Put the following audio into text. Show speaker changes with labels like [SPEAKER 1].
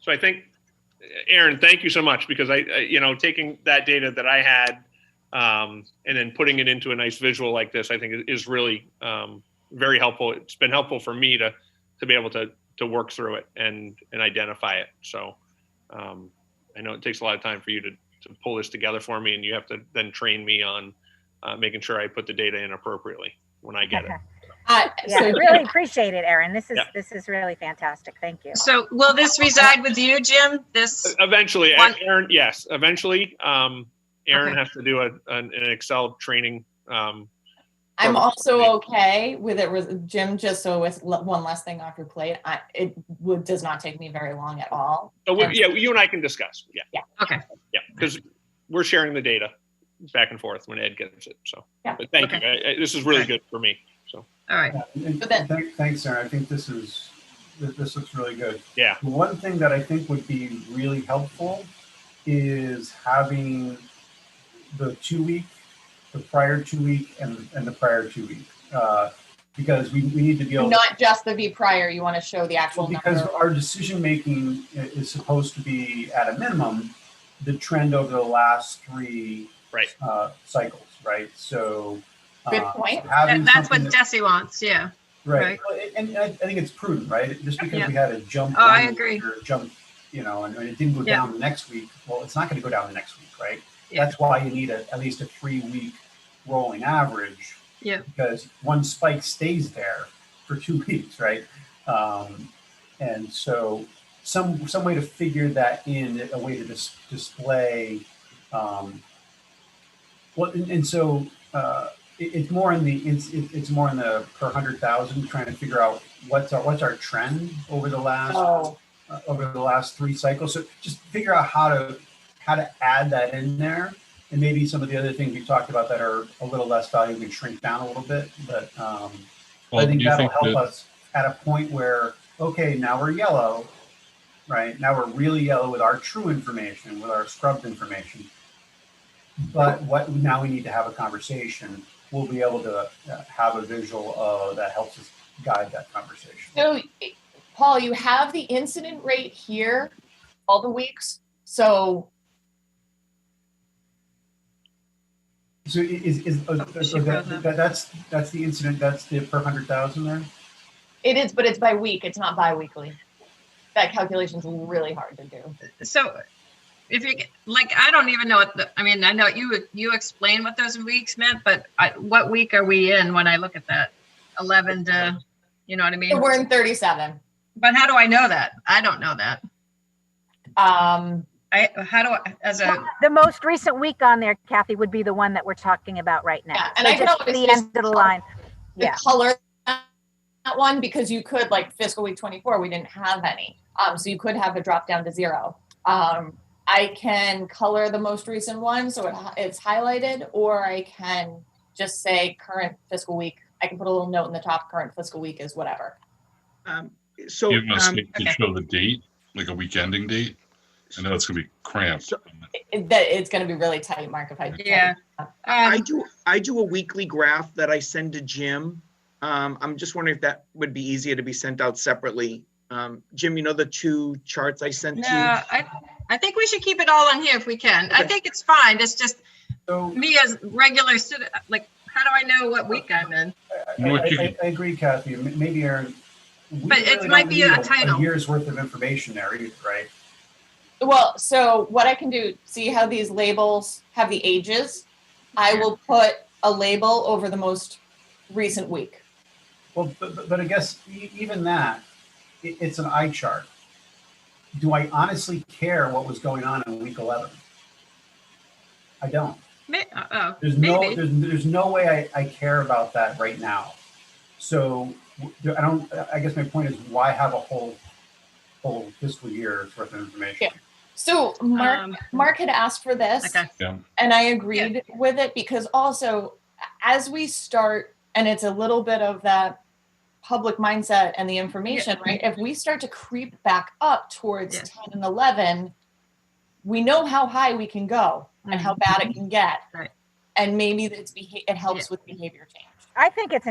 [SPEAKER 1] So I think, Aaron, thank you so much because I, I you know, taking that data that I had um, and then putting it into a nice visual like this, I think is- is really um, very helpful. It's been helpful for me to to be able to to work through it and and identify it. So um, I know it takes a lot of time for you to to pull this together for me, and you have to then train me on uh, making sure I put the data in appropriately when I get it.
[SPEAKER 2] Uh,
[SPEAKER 3] Yeah,
[SPEAKER 2] so,
[SPEAKER 3] really appreciate it, Erin. This is,
[SPEAKER 1] Yeah.
[SPEAKER 3] this is really fantastic. Thank you.
[SPEAKER 2] so will this reside with you, Jim? This,
[SPEAKER 1] Eventually,
[SPEAKER 2] One-
[SPEAKER 1] Aaron. Yes, eventually. Um, Aaron
[SPEAKER 2] Okay.
[SPEAKER 1] has to do a, an, an Excel training. Um,
[SPEAKER 4] I'm
[SPEAKER 1] Perfect.
[SPEAKER 4] also okay with it, with Jim, just so with l- one less thing off your plate, I, it would, does not take me very long at all.
[SPEAKER 1] so we,
[SPEAKER 4] Okay.
[SPEAKER 1] yeah, you and I can discuss. Yeah.
[SPEAKER 4] Yeah.
[SPEAKER 2] Okay.
[SPEAKER 1] Yeah, because we're sharing the data back and forth when Ed gets it. So,
[SPEAKER 4] Yeah.
[SPEAKER 1] but thank you. I, I, this is really
[SPEAKER 2] Okay.
[SPEAKER 1] good for me. So,
[SPEAKER 2] all right,
[SPEAKER 5] And
[SPEAKER 4] But then-
[SPEAKER 5] th- Thanks, Aaron. I think this is, th- this looks really good.
[SPEAKER 1] Yeah.
[SPEAKER 5] The One thing that I think would be really helpful is having the two week, the prior two week and, and the prior two week. uh, Because we, we need to be able.
[SPEAKER 4] Not just the V prior, you want to show the actual
[SPEAKER 5] Because
[SPEAKER 4] number.
[SPEAKER 5] our decision making is supposed to be at a minimum, the trend over the last three.
[SPEAKER 1] Right.
[SPEAKER 5] uh, Cycles, right? So.
[SPEAKER 4] Good
[SPEAKER 5] uh,
[SPEAKER 4] point.
[SPEAKER 5] having
[SPEAKER 2] That- that's
[SPEAKER 5] something
[SPEAKER 2] what
[SPEAKER 5] that-
[SPEAKER 2] Desi wants, yeah.
[SPEAKER 5] Right. Well, it- And I I think it's prudent, right? Just because
[SPEAKER 2] Yeah.
[SPEAKER 5] we had a jump.
[SPEAKER 2] Oh, I
[SPEAKER 5] one
[SPEAKER 2] agree.
[SPEAKER 5] week Or a jump, you know, and and it didn't go
[SPEAKER 2] Yeah.
[SPEAKER 5] down the next week. Well, it's not going to go down the next week, right?
[SPEAKER 2] Yeah.
[SPEAKER 5] That's why you need a, at least a three week rolling average.
[SPEAKER 2] Yeah.
[SPEAKER 5] Because one spike stays there for two weeks, right? Um, and so some, some way to figure that in, a way to dis- display, um, well, and, and so, uh, it, it's more in the it's it, it's more in the per hundred thousand trying to figure out what's our what's our trend over the last
[SPEAKER 4] Oh,
[SPEAKER 5] uh, over the last three cycles so just figure out how to how to add that in there and maybe some of the other things we talked about that are a little less valuable can shrink down a little bit but um
[SPEAKER 6] Well,
[SPEAKER 5] i think
[SPEAKER 6] do you
[SPEAKER 5] that'll
[SPEAKER 6] think
[SPEAKER 5] help
[SPEAKER 6] that-
[SPEAKER 5] us at a point where okay now we're yellow right now we're really yellow with our true information with our scrubbed information but what now we need to have a conversation we'll be able to uh, have a visual uh, that helps us guide that conversation
[SPEAKER 4] So, Paul, you have the incident rate here, all the weeks, so
[SPEAKER 5] So i- is, is, uh,
[SPEAKER 2] Oh, she
[SPEAKER 5] so that,
[SPEAKER 2] froze up.
[SPEAKER 5] that- that's, that's the incident, that's the per hundred thousand there?
[SPEAKER 4] it is, but it's by week, it's not bi-weekly. That calculation's really hard to do.
[SPEAKER 2] So if you, get- like, I don't even know what the, I mean, I know you, you explained what those weeks meant, but I, what week are we in when I look at that? 11 to, you know what I mean?
[SPEAKER 4] So We're in thirty-seven.
[SPEAKER 2] But how do I know that? I don't know that.
[SPEAKER 4] Um,
[SPEAKER 2] I, how do I, as a,
[SPEAKER 3] The most recent week on there, Kathy, would be the one that we're talking about right now.
[SPEAKER 4] Yeah, and
[SPEAKER 3] So
[SPEAKER 4] I can
[SPEAKER 3] just
[SPEAKER 4] always
[SPEAKER 3] The
[SPEAKER 4] just-
[SPEAKER 3] end of the line.
[SPEAKER 4] the
[SPEAKER 3] Yeah.
[SPEAKER 4] color that one because you could like fiscal week 24 we didn't have any um so you could have a drop down to zero um i can color the most recent one so it, it's highlighted or i can just say current fiscal week i can put a little note in the top current fiscal week is whatever
[SPEAKER 7] Um, So,
[SPEAKER 6] Give us
[SPEAKER 7] um,
[SPEAKER 6] to
[SPEAKER 2] okay.
[SPEAKER 6] show the date, like a week ending date. I know it's gonna be cramped.
[SPEAKER 4] It- that it's going to be really tight mark if i
[SPEAKER 2] yeah.
[SPEAKER 7] I
[SPEAKER 2] Um,
[SPEAKER 7] do, I do a weekly graph that I send to Jim. Um, I'm just wondering if that would be easier to be sent out separately. Um, Jim, you know the two charts I sent
[SPEAKER 2] no,
[SPEAKER 7] to you?
[SPEAKER 2] I, I think we should keep it all on here if we can. I
[SPEAKER 7] Okay.
[SPEAKER 2] think it's fine. It's just
[SPEAKER 5] So
[SPEAKER 2] me as regular citizen, like, how do I know what week I'm in?
[SPEAKER 5] I,
[SPEAKER 6] You know what you
[SPEAKER 5] I- I- I agree Kathy, M- maybe Aaron. we
[SPEAKER 2] But it
[SPEAKER 5] really
[SPEAKER 2] might
[SPEAKER 5] don't
[SPEAKER 2] be a
[SPEAKER 5] need
[SPEAKER 2] title.
[SPEAKER 5] Year's worth of information there either, right?
[SPEAKER 4] Well, so what I can do, see how these labels have the ages? I will put a label over the most recent week.
[SPEAKER 5] Well, but, but- but I guess e- even that, i it's an eye chart. Do I honestly care what was going on in week eleven? I don't.
[SPEAKER 2] May, uh, oh,
[SPEAKER 5] There's no,
[SPEAKER 2] maybe.
[SPEAKER 5] there's, there's no way I, I care about that right now. So w- there- I don't, I guess my point is why have a whole, whole fiscal year's worth of information?
[SPEAKER 4] So Mark,
[SPEAKER 2] Um,
[SPEAKER 4] Mark had asked for this.
[SPEAKER 2] Okay.
[SPEAKER 4] and I agreed with it because also as we start and it's a little bit of that public mindset and the information right if we start to creep back up towards
[SPEAKER 2] Yeah.
[SPEAKER 4] 10 and 11 we know how high we can go
[SPEAKER 2] mm-hmm.
[SPEAKER 4] and how bad it can get
[SPEAKER 2] Right.
[SPEAKER 4] and maybe it's beha- it helps with behavior change
[SPEAKER 3] I think it's